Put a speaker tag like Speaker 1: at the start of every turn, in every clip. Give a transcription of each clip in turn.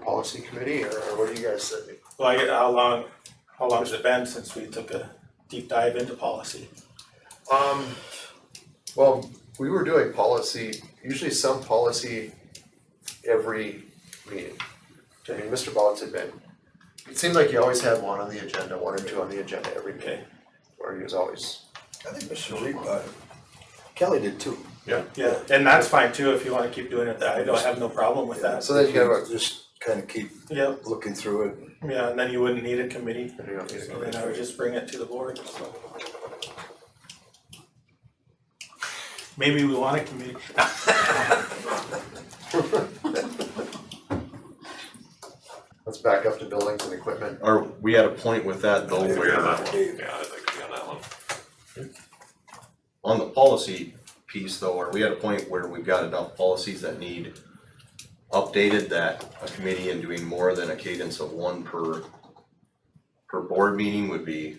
Speaker 1: policy committee, or what do you guys say?
Speaker 2: Well, I, how long, how long has it been since we took a deep dive into policy?
Speaker 1: Um, well, we were doing policy, usually some policy every meeting. I mean, Mr. Bollins had been, it seemed like he always had one on the agenda, one or two on the agenda every meeting,
Speaker 2: Okay,
Speaker 1: or he was always.
Speaker 3: I think Mr. Reed, uh, Kelly did too.
Speaker 1: Yeah.
Speaker 2: yeah, and that's fine too, if you wanna keep doing it, I don't have no problem with that.
Speaker 1: So then you have a,
Speaker 3: Just kind of keep
Speaker 2: Yep,
Speaker 3: looking through it.
Speaker 2: yeah, and then you wouldn't need a committee,
Speaker 1: I don't need to
Speaker 2: so
Speaker 1: go
Speaker 2: then I
Speaker 1: into
Speaker 2: would
Speaker 1: it.
Speaker 2: just bring it to the board, so. Maybe we want a committee.
Speaker 1: let's back up to buildings and equipment.
Speaker 4: Are we at a point with that though where
Speaker 5: Yeah, I think we got that one.
Speaker 4: on the policy piece though, are we at a point where we've got enough policies that need updated that a committee and doing more than a cadence of one per per board meeting would be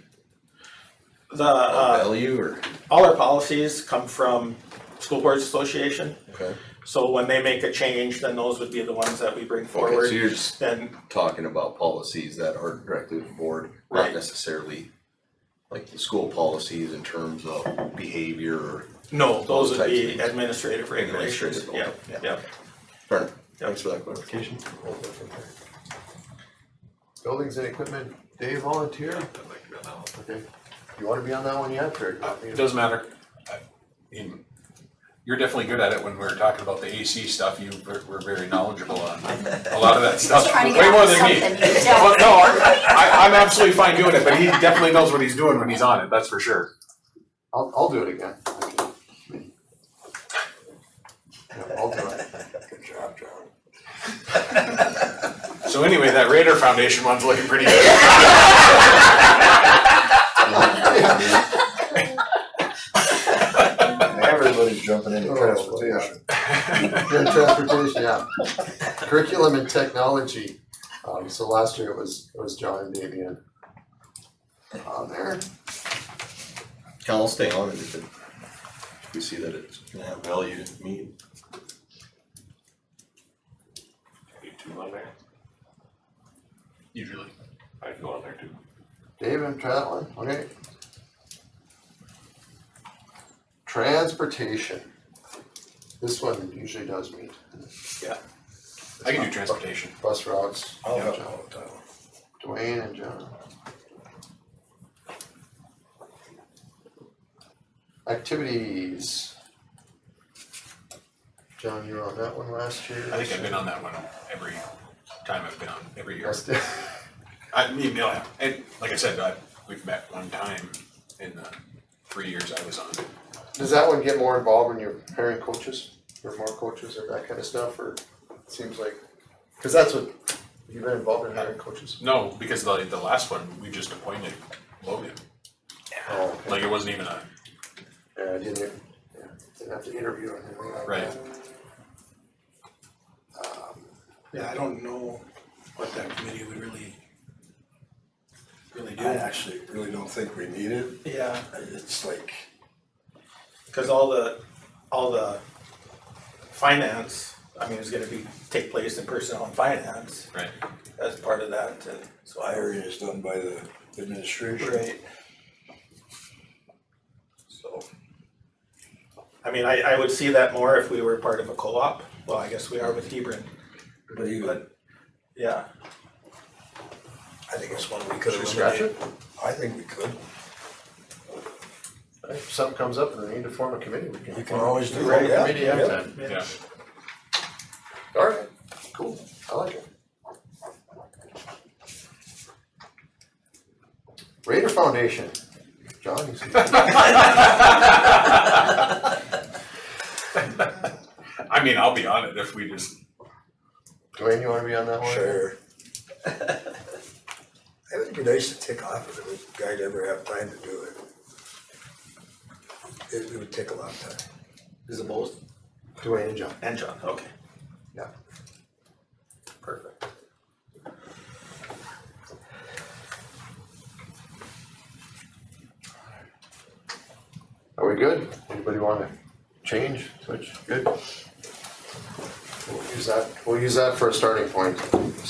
Speaker 2: The,
Speaker 4: of
Speaker 2: uh,
Speaker 4: value or?
Speaker 2: all our policies come from School Boards Association,
Speaker 4: Okay.
Speaker 2: so when they make a change, then those would be the ones that we bring
Speaker 4: Okay, so
Speaker 2: forward.
Speaker 4: you're just
Speaker 2: Then,
Speaker 4: talking about policies that are directly with the board,
Speaker 2: Right.
Speaker 4: not necessarily like the school policies in terms of behavior or.
Speaker 2: no, those
Speaker 4: Those
Speaker 2: would
Speaker 4: types of
Speaker 2: be
Speaker 4: things.
Speaker 2: administrative regulations, yeah,
Speaker 4: Administrative, okay,
Speaker 2: yeah.
Speaker 4: Fair enough. Thanks for that clarification.
Speaker 1: Buildings and equipment, Dave volunteer,
Speaker 5: I think we got that one.
Speaker 1: okay, you wanna be on that one yet, or?
Speaker 5: Uh, It doesn't matter. I mean, You're definitely good at it when we were talking about the AC stuff. You were were very knowledgeable on a lot of that stuff,
Speaker 6: trying to
Speaker 5: way
Speaker 6: get
Speaker 5: more
Speaker 6: out
Speaker 5: than me.
Speaker 6: something. Yeah.
Speaker 5: Well, no, I, I'm absolutely fine doing it, but he definitely knows what he's doing when he's on it, that's for sure.
Speaker 1: I'll, I'll do it again. Yeah, I'll do it.
Speaker 3: Good job, John.
Speaker 5: So anyway, that Raider Foundation one's looking pretty good.
Speaker 3: Everybody's jumping into
Speaker 1: Oh,
Speaker 3: transportation.
Speaker 1: Yeah, transportation, yeah. Curriculum and technology. Um, so last year it was, it was John and Damian. On there.
Speaker 4: Cal, I'll stay on it if it, if we see that it's gonna have value to me.
Speaker 5: You two on there? Usually. I go on there too.
Speaker 1: Dave and try that one, okay? Transportation. This one usually does meet.
Speaker 5: I can do transportation. Oh,
Speaker 1: Bus routes,
Speaker 3: I'll
Speaker 1: Yeah.
Speaker 3: help all the time.
Speaker 1: Dwayne and John. Activities. John, you were on that one last year.
Speaker 5: I think I've been on that one every time I've been on, every year.
Speaker 1: Must have.
Speaker 5: I mean, yeah, and like I said, I, we've met one time in the three years I was on.
Speaker 1: Does that one get more involved when you're pairing coaches or more coaches or that kind of stuff or it seems like? Cause that's what, you've been involved in hiring coaches?
Speaker 5: No, because the, the last one, we just appointed Logan,
Speaker 1: Oh, okay.
Speaker 5: like it wasn't even a,
Speaker 1: Yeah, I didn't, yeah, didn't have to interview or anything like that.
Speaker 5: Right.
Speaker 2: Yeah, I don't know what that committee would really, really
Speaker 3: I
Speaker 2: do.
Speaker 3: actually really don't think we need it.
Speaker 2: Yeah,
Speaker 3: It's like,
Speaker 2: cause all the, all the finance, I mean, is gonna be, take place in personnel and finance
Speaker 5: right?
Speaker 2: as part of that, and so I.
Speaker 3: hiring is done by the administration.
Speaker 2: Right. So. I mean, I, I would see that more if we were part of a co-op, well, I guess we are with Hebron,
Speaker 3: But even,
Speaker 2: but, yeah,
Speaker 3: I think it's one we could
Speaker 1: Should we scratch
Speaker 3: eliminate.
Speaker 1: it?
Speaker 3: I think we could.
Speaker 1: If something comes up and they need to form a committee, we can.
Speaker 3: You can always do
Speaker 1: Right,
Speaker 3: that.
Speaker 1: committee anytime.
Speaker 2: yeah,
Speaker 1: Alright, cool, I like it. Raider Foundation, John, you see.
Speaker 5: I mean, I'll be on it if we just,
Speaker 1: Dwayne, you wanna be on that one?
Speaker 3: Sure. It would be nice to tick off if the guy'd ever have time to do it. It it would take a lot of time.
Speaker 1: Is it both? Dwayne and John,
Speaker 2: and John, okay,
Speaker 1: yeah.
Speaker 2: perfect.
Speaker 1: Are we good? Anybody wanna change, switch, good? We'll use that, we'll use that for a starting point.